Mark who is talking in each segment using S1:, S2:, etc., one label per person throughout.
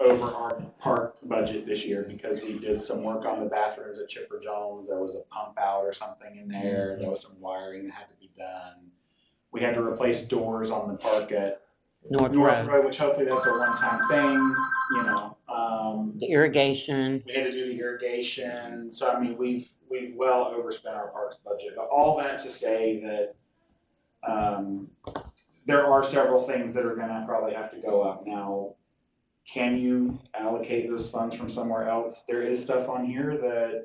S1: over our park budget this year because we did some work on the bathrooms at Chipper Jones. There was a pump out or something in there.
S2: Mm-hmm.
S1: There was some wiring that had to be done. We had to replace doors on the park at
S2: North
S1: North
S2: Road,
S1: Road, which hopefully that's a one-time thing, you know. Um,
S2: the irrigation.
S1: we had to do the irrigation, so I mean, we've, we've well overspent our parks budget, but all that to say that, um, there are several things that are gonna probably have to go up now. Can you allocate those funds from somewhere else? There is stuff on here that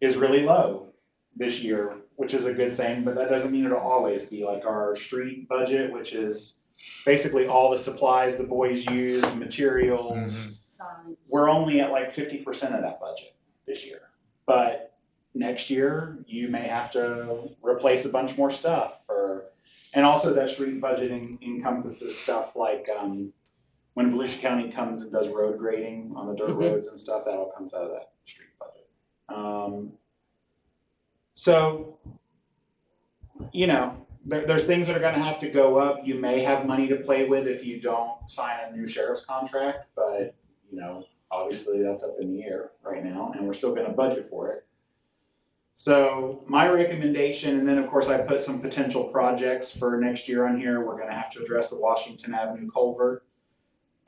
S1: is really low this year, which is a good thing, but that doesn't mean it'll always be like our street budget, which is basically all the supplies the boys use, materials,
S3: sign.
S1: we're only at like fifty percent of that budget this year. But next year, you may have to replace a bunch more stuff or, and also that street budget en- encompasses stuff like, um, when Volusia County comes and does road grading on the dirt
S2: Mhm.
S1: roads and stuff, that all comes out of that street budget. Um, so, you know, there, there's things that are gonna have to go up. You may have money to play with if you don't sign a new sheriff's contract, but, you know, obviously that's up in the air right now and we're still going to budget for it so my recommendation and then of course i put some potential projects for next year on here we're going to have to address the washington avenue culvert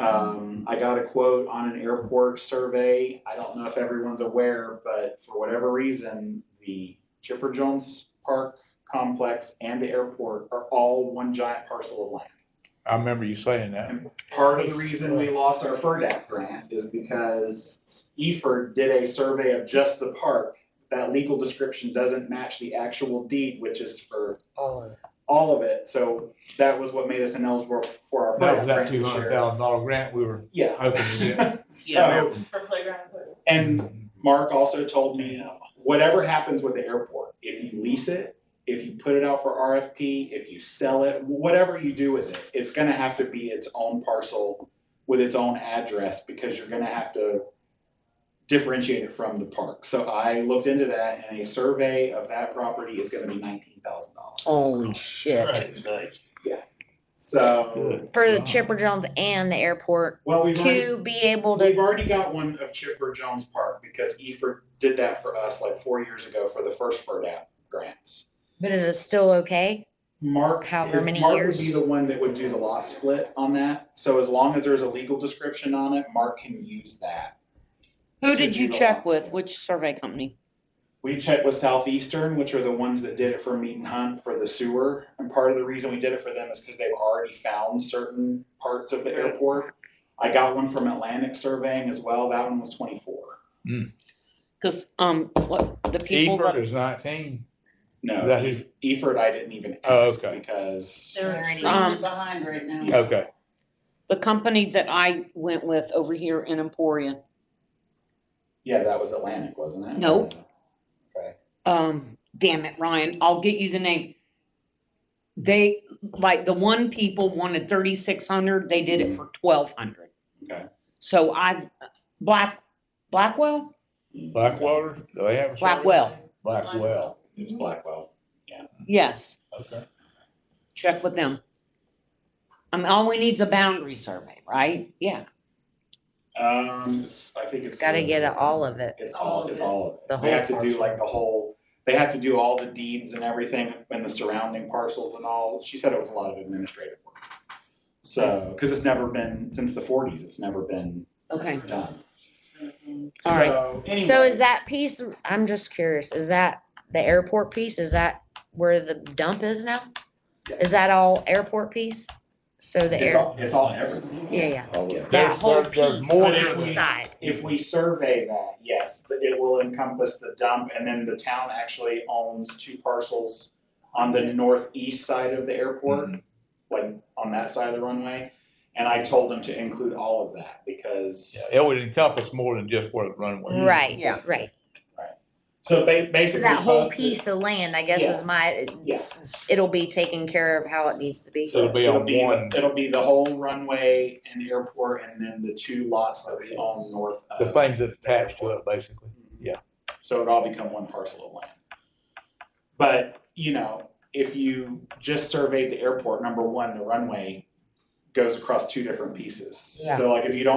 S1: um, i got a quote on an airport survey i don't know if everyone's aware but for whatever reason the chipper jones park complex and the airport are all one giant parcel of land
S4: I remember you saying that.
S1: and part of the reason we lost our E FERDAP grant is because E EFERD did a survey of just the park. That legal description doesn't match the actual deed, which is for all of it. So that was what made us ineligible for our E FERDAP grant
S4: That was that
S1: this
S4: two hundred
S1: year.
S4: thousand dollar grant we were
S1: Yeah.
S4: hoping to get.
S1: So,
S3: For playground equipment.
S1: and Mark also told me, uh, whatever happens with the airport, if you lease it, if you put it out for RFP, if you sell it, whatever you do with it, it's gonna have to be its own parcel with its own address because you're gonna have to differentiate it from the park. So I looked into that and a survey of that property is gonna be nineteen thousand dollars.
S2: Holy shit.
S1: So,
S5: for the
S4: Wow.
S5: Chipper Jones and the airport
S1: well, we've already,
S5: to be able
S1: we've
S5: to.
S1: already got one of Chipper Jones Park because EFER did that for us like four years ago for the first FERDAP grants.
S5: But is it still okay?
S1: Mark,
S5: However
S1: is-
S5: many
S1: Mark
S5: years.
S1: would be the one that would do the lot split on that. So as long as there's a legal description on it, Mark can use that.
S2: Who did you check with? Which survey company?
S1: We checked with Southeastern, which are the ones that did it for Meat and Hunt for the sewer. And part of the reason we did it for them is because they've already found certain parts of the airport. I got one from Atlantic Surveying as well. That one was 24.
S2: Because, um, what, the people
S4: Eford
S2: that,
S4: is nineteen. Is
S1: No,
S4: that who-
S1: Eford I didn't even
S4: Oh,
S1: ask
S4: okay.
S1: because
S3: They're
S5: Alrighty.
S3: trees behind right now.
S4: Okay.
S2: the company that I went with over here in Emporia,
S1: yeah, that was Atlantic, wasn't it?
S2: Nope. um, damn it, Ryan, I'll get you the name. They, like, the one people wanted thirty-six hundred, they did it for twelve hundred.
S1: Okay.
S2: So I've, Black, Blackwell?
S4: Blackwater, do they have a? survey?
S2: Blackwell,
S4: Blackwell,
S1: It's Blackwell.
S2: yes,
S4: okay.
S2: check with them. I mean, all we need's a boundary survey, right? Yeah,
S1: Um, it's- I think it's.
S5: Gotta get a- all of it.
S1: It's all, it's all of it.
S5: The
S1: They
S5: whole
S1: have to do
S5: parcel.
S1: like the whole, they have to do all the deeds and everything and the surrounding parcels and all. She said it was a lot of administrative work. So, because it's never been, since the forties, it's never been
S2: okay,
S1: done.
S2: all right.
S1: So, anyway.
S5: So is that piece? I'm just curious. Is that the airport piece? Is that where the dump is now? Is that all airport piece? So the
S1: It's
S5: air.
S1: all, it's all everything.
S5: Yeah, yeah.
S1: Yeah.
S5: That
S4: There's-
S5: whole
S4: there's- there's
S5: piece
S4: more
S5: on
S1: to
S5: the
S1: it.
S5: side.
S1: If we survey that, yes, that it will encompass the dump and then the town actually owns two parcels on the northeast side of the airport, like on that side of the runway. And I told them to include all of that because,
S4: Yeah, It would encompass more than just where the runway. is.
S5: Right,
S2: Yeah.
S5: right.
S1: so ba-
S5: So
S1: basically.
S5: that whole
S1: both-
S5: piece of land, I guess,
S1: Yeah.
S5: is my.
S1: Yeah.
S5: It'll be taken care of how it needs to be.
S4: So it'll be
S1: It'll
S4: on
S1: be,
S4: one,
S1: it'll be the whole runway and airport and then the two lots that we own north
S4: the
S1: of. Mm-hmm.
S4: things that attach to it, basically. Yeah.
S1: So it'd all become one parcel of land. But, you know, if you just surveyed the airport, number one, the runway goes across two different pieces.
S5: Yeah.
S1: So like if you don't